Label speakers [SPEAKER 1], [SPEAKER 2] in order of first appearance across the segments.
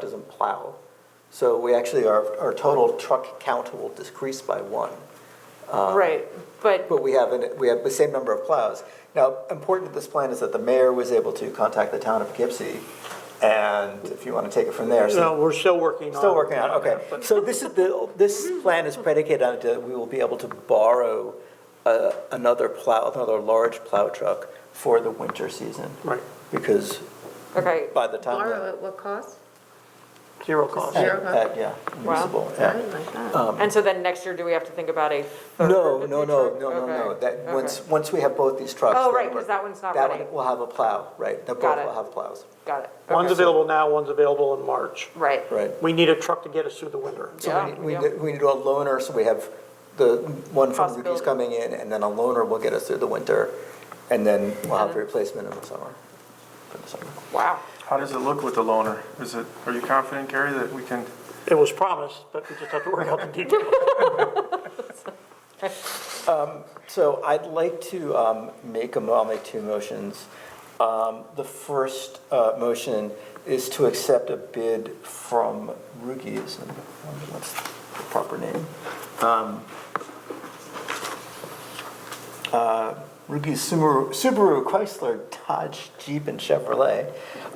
[SPEAKER 1] doesn't plow. So we actually, our, our total truck count will decrease by one.
[SPEAKER 2] Right, but,
[SPEAKER 1] But we have, an- we have the same number of plows. Now, important to this plan is that the mayor was able to contact the town of Poughkeepsie, and if you want to take it from there. so-
[SPEAKER 3] No, we're still working on it.
[SPEAKER 1] Still working on, it, okay. So this is the, this plan is predicated on, it, uh, we will be able to borrow uh, another plow, another large plow truck for the winter season,
[SPEAKER 3] Right,
[SPEAKER 1] because
[SPEAKER 2] okay,
[SPEAKER 1] by the time.
[SPEAKER 4] Borrow at what cost?
[SPEAKER 3] zero cost.
[SPEAKER 1] at-
[SPEAKER 4] Zero, huh?
[SPEAKER 1] at- Yeah, municipal,
[SPEAKER 4] Oh
[SPEAKER 1] yeah.
[SPEAKER 4] my God.
[SPEAKER 2] and so then next year, do we have to think about a third?
[SPEAKER 1] Um, No, no, no, no,
[SPEAKER 2] truck?
[SPEAKER 1] no, no,
[SPEAKER 2] Okay,
[SPEAKER 1] that,
[SPEAKER 2] okay.
[SPEAKER 1] once, once we have both these trucks.
[SPEAKER 2] Oh,
[SPEAKER 1] then
[SPEAKER 2] right, 'cause
[SPEAKER 1] we're-
[SPEAKER 2] that one's not
[SPEAKER 1] That
[SPEAKER 2] ready.
[SPEAKER 1] one will have a plow, right, that
[SPEAKER 2] Got
[SPEAKER 1] both will
[SPEAKER 2] it.
[SPEAKER 1] have plows,
[SPEAKER 2] Got it. okay.
[SPEAKER 3] One's available now, one's available in March.
[SPEAKER 2] Right,
[SPEAKER 1] right.
[SPEAKER 3] We need a truck to get us through the winter.
[SPEAKER 2] Yeah,
[SPEAKER 1] So we need- we
[SPEAKER 2] yeah.
[SPEAKER 1] need, we need a loaner, so we have the one from Ruby's
[SPEAKER 2] Possibility.
[SPEAKER 1] coming in, and then a loaner will get us through the winter, and then we'll have the
[SPEAKER 2] Uh-huh.
[SPEAKER 1] replacement in the summer. for the summer.
[SPEAKER 2] wow,
[SPEAKER 5] How does it look with the loaner? Is it, are you confident, Gary, that we can?
[SPEAKER 3] It was promised, but we just have to work out the details.
[SPEAKER 1] So I'd like to um, make a, mo- I'll make two motions. Um, The first uh, motion is to accept a bid from Rugies, and what's the proper name? Um, uh, Rugies Subaru, Subaru, Chrysler, Dodge, Jeep, and Chevrolet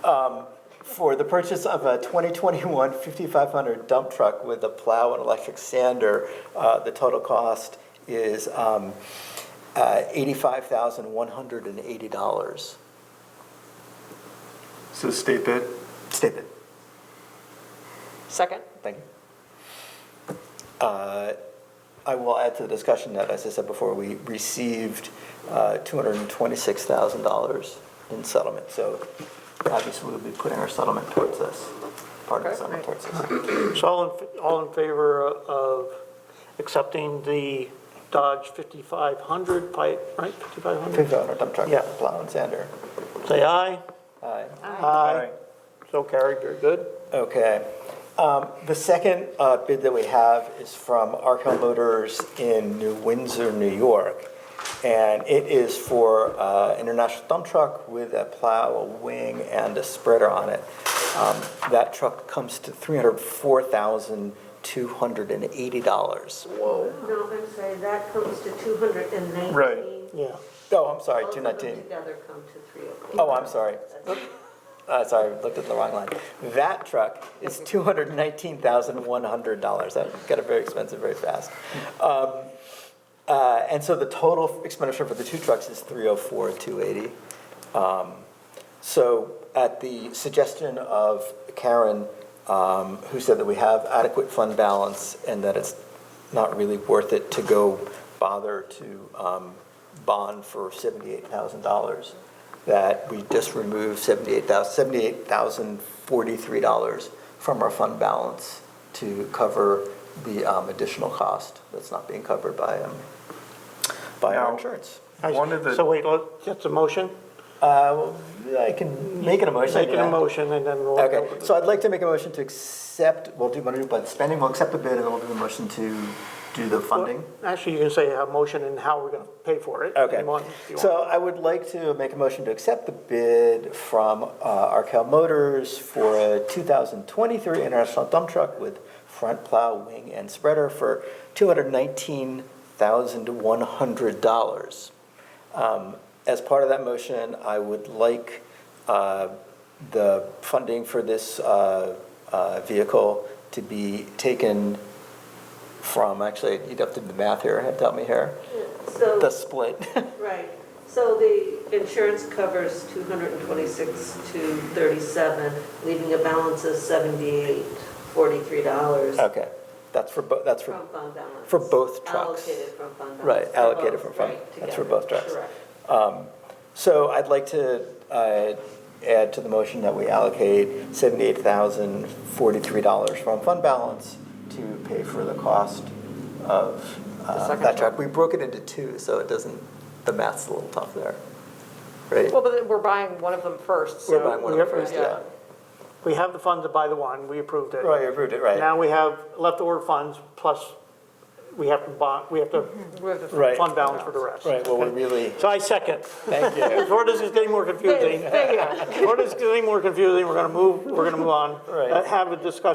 [SPEAKER 1] um, for the purchase of a 2021 5500 dump truck with a plow and electric sander. Uh, The total cost is um, uh, $85,180.
[SPEAKER 5] So state bid?
[SPEAKER 1] State bid.
[SPEAKER 2] second,
[SPEAKER 1] Thank you. Uh, I will add to the discussion that, as I said before, we received uh, $226,000 in settlement. So obviously, we'll be putting our settlement towards this, part of the settlement towards this.
[SPEAKER 3] So all in, all in favor of accepting the Dodge 5500 pipe, right, 5500?
[SPEAKER 1] $1,500 dump truck,
[SPEAKER 3] Yeah.
[SPEAKER 1] plow and sander.
[SPEAKER 3] Say aye.
[SPEAKER 1] Aye.
[SPEAKER 3] Aye. So carried, very good.
[SPEAKER 1] Okay. Um, The second uh, bid that we have is from Arkell Motors in New Windsor, New York. And it is for uh, international dump truck with a plow, a wing, and a spreader on it. Um, That truck comes to $304,280.
[SPEAKER 6] No, I'm sorry, that comes to 219.
[SPEAKER 5] Right.
[SPEAKER 3] Yeah.
[SPEAKER 1] Oh, I'm sorry,
[SPEAKER 6] Both of them
[SPEAKER 1] 219.
[SPEAKER 6] together come to 304.
[SPEAKER 1] Oh, I'm sorry. Uh, Sorry, I looked at the wrong line. That truck is $219,100. That got very expensive very fast. Um, uh, And so the total expenditure for the two trucks is 304, 280. So at the suggestion of Karen, um, who said that we have adequate fund balance and that it's not really worth it to go bother to um, bond for $78,000, that we just remove $78,000 $78,043 from our fund balance to cover the um, additional cost that's not being covered by, um, by our
[SPEAKER 5] Now-
[SPEAKER 1] insurance.
[SPEAKER 5] One of
[SPEAKER 3] So
[SPEAKER 5] the,
[SPEAKER 3] wait, let- that's a motion?
[SPEAKER 1] Uh, well, I can make an emotion.
[SPEAKER 3] Make it a motion and then we'll.
[SPEAKER 1] Okay, so I'd like to make a motion to accept, we'll do, we'll do, but spending, we'll accept the bid, and then we'll do a motion to do the funding.
[SPEAKER 3] Actually, you can say a motion and how we're going to pay for it.
[SPEAKER 1] Okay,
[SPEAKER 3] You want- you
[SPEAKER 1] so I would like to make a motion to accept the bid from uh, Arkell Motors for a 2023 International Dump Truck with front plow, wing, and spreader for $219,100. Um, As part of that motion, I would like uh, the funding for this uh, uh, vehicle to be taken from, actually, you'd have to do the math here, help me here, the
[SPEAKER 6] So,
[SPEAKER 1] split.
[SPEAKER 6] right, so the insurance covers 226 to 37, leaving a balance of 78, 43 dollars.
[SPEAKER 1] Okay, that's for, bo- that's Uh, for,
[SPEAKER 6] From fund balance.
[SPEAKER 1] for both trucks.
[SPEAKER 6] Allocated from fund balance.
[SPEAKER 1] Right,
[SPEAKER 6] For
[SPEAKER 1] allocated
[SPEAKER 6] both,
[SPEAKER 1] from fund-
[SPEAKER 6] right,
[SPEAKER 1] that's for
[SPEAKER 6] together,
[SPEAKER 1] both trucks.
[SPEAKER 6] Correct.
[SPEAKER 1] so I'd like to uh, add to the motion that we allocate $78,043 from fund balance to pay for the cost of uh,
[SPEAKER 2] second
[SPEAKER 1] that truck. We broke it into two, so it doesn't, the math's a little tough there, right?
[SPEAKER 2] well, but then we're buying one of them first, so.
[SPEAKER 1] We're buying one of the
[SPEAKER 3] we-
[SPEAKER 1] first,
[SPEAKER 2] yeah.
[SPEAKER 1] yeah.
[SPEAKER 3] want- We have the funds to buy the one, we approved it.
[SPEAKER 1] Right, you approved it, right.
[SPEAKER 3] Now we have leftover funds plus we have to bond, we have to
[SPEAKER 2] We have the-
[SPEAKER 1] Right,
[SPEAKER 3] fund balance for the rest.
[SPEAKER 1] right, well, we really,
[SPEAKER 3] So I second.
[SPEAKER 1] thank you.
[SPEAKER 3] Before this is getting more confusing,
[SPEAKER 2] There you go.
[SPEAKER 3] before this is getting more confusing, we're going to move, we're going to move on.
[SPEAKER 1] Right.
[SPEAKER 3] Uh, Have a discussion